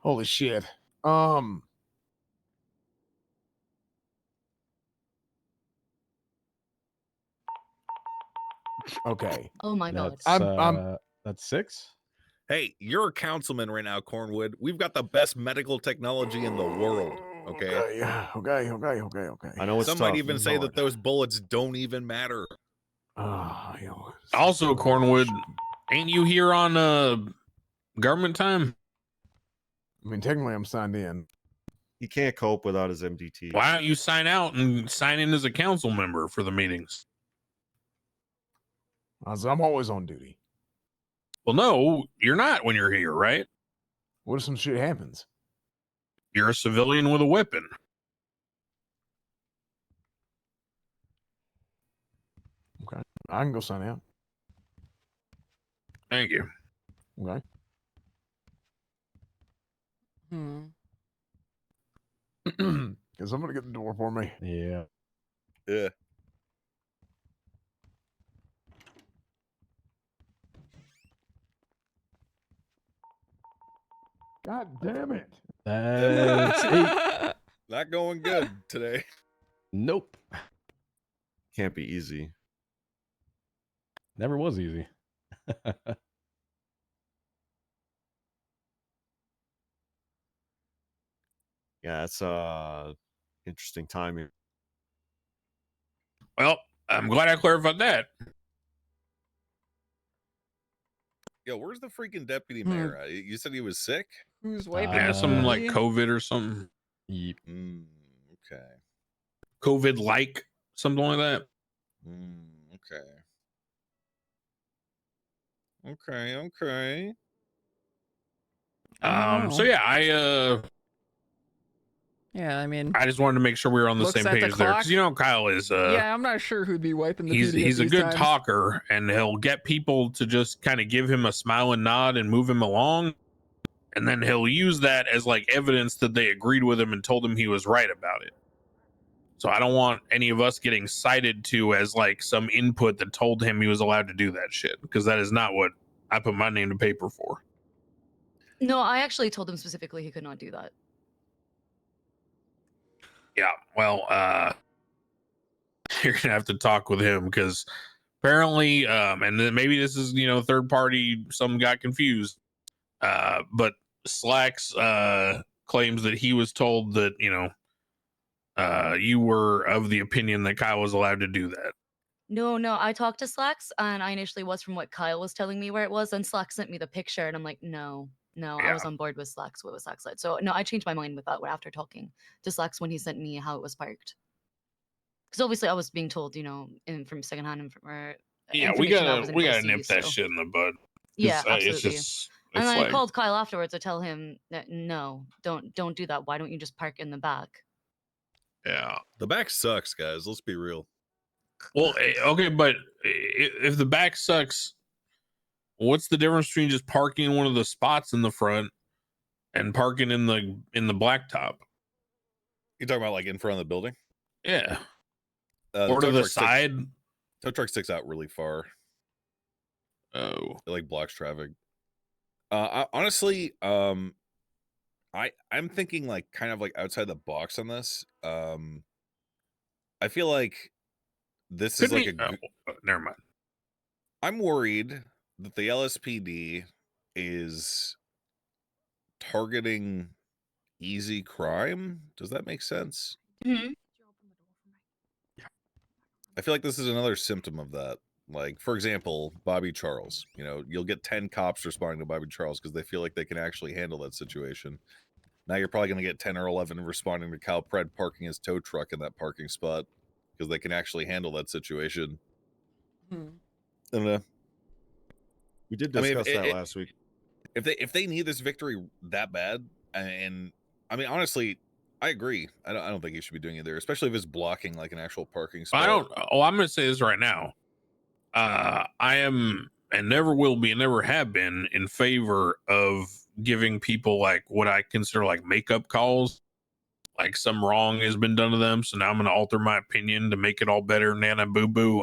Holy shit. Um. Okay. Oh my god. That's, I'm- uh, I'm- that's six. Hey, you're a councilman right now, Cornwood. We've got the best medical technology in the world. Okay. Okay. yeah, Okay. Okay. Okay. Okay. I know it's Some might tough. even say that those bullets don't even matter. Ah, you know, it's- Also, Cornwood, shit. ain't you here on uh government time? I mean, technically, I'm signed in. he can't cope without his MDT. Why don't you sign out and sign in as a council member for the meetings? I was- I'm always on duty. Well, no, you're not when you're here, right? What if some shit happens? You're a civilian with a weapon. I can go sign out. Thank you. Okay. Hmm. Because I'm gonna get the door for me. Yeah. Yeah. God damn it! That's eight. Not going good today. Nope. Can't be easy. Never was easy. Yeah, that's uh interesting timing. Well, I'm glad I clarified that. Yo, where's the freaking deputy Hmm. mayor? at? You said he was sick? Who's way Uh, yeah, some like busy. COVID or something, Yeep. Mm, okay. COVID like something like that. Mm, okay. Okay, okay. I don't Um, so know. yeah, I uh, Yeah, I mean, I just wanted to make sure we were on the Looks same at the page there clock. because you know Kyle is uh, yeah, I'm not sure who'd be wiping the. he's booty at he's a these good times. talker and he'll get people to just kind of give him a smile and nod and move him along and then he'll use that as like evidence that they agreed with him and told him he was right about it so i don't want any of us getting cited to as like some input that told him he was allowed to do that shit because that is not what i put my name to paper for No, I actually told him specifically he could not do that. yeah well uh you're gonna have to talk with him because apparently um and then maybe this is you know third party some got confused uh but slacks uh claims that he was told that you know uh you were of the opinion that kyle was allowed to do that No, no, I talked to Slacks and I initially was from what Kyle was telling me where it was, and Slacks sent me the picture, and I'm like, no, no, I Yeah. was on board with Slacks. What was Slacks said? So no, I changed my mind with that one after talking to Slacks when he sent me how it was parked. Because obviously I was being told, you know, in, from secondhand and from or uh, yeah we information that gotta wasn't we able to gotta see, nip that so- shit in the bud 'cause, Yeah, uh, absolutely. it's just and it's then I like called Kyle afterwards to tell him that no, don't don't do that. Why don't you just park in the back? yeah The back sucks, guys. Let's be real. Well, eh, okay, but i- i- if the back sucks, what's the difference between just parking in one of the spots in the front and parking in the in the blacktop? You talking about like in front of the building? Yeah, Uh, or to tow the truck sticks- side. tow truck sticks out really far. Oh, It like blocks traffic. Uh, I, honestly, um, I I'm thinking like kind of like outside the box on this. Um, I feel like this is could like be- a oh, uh, never mind. I'm worried that the LSPD is targeting easy crime. Does that make sense? I feel like this is another symptom of that. Like, for example, Bobby Charles. You know, you'll get 10 cops responding to Bobby Charles because they feel like they can actually handle that situation. Now you're probably going to get 10 or 11 responding to Cal Pred parking his tow truck in that parking spot because they can actually handle that situation. Hmm. I don't know. We did I mean, if discuss it- that it- last week. if they if they need this victory that bad, and I mean honestly, I agree. I don't I don't think he should be doing it there, especially if it's blocking like an actual parking spot. I don't. Oh, I'm going to say this right now. Uh, I am and never will be and never have been in favor of giving people like what I consider like makeup calls. Like some wrong has been done to them, so now I'm going to alter my opinion to make it all better. Nana boo boo.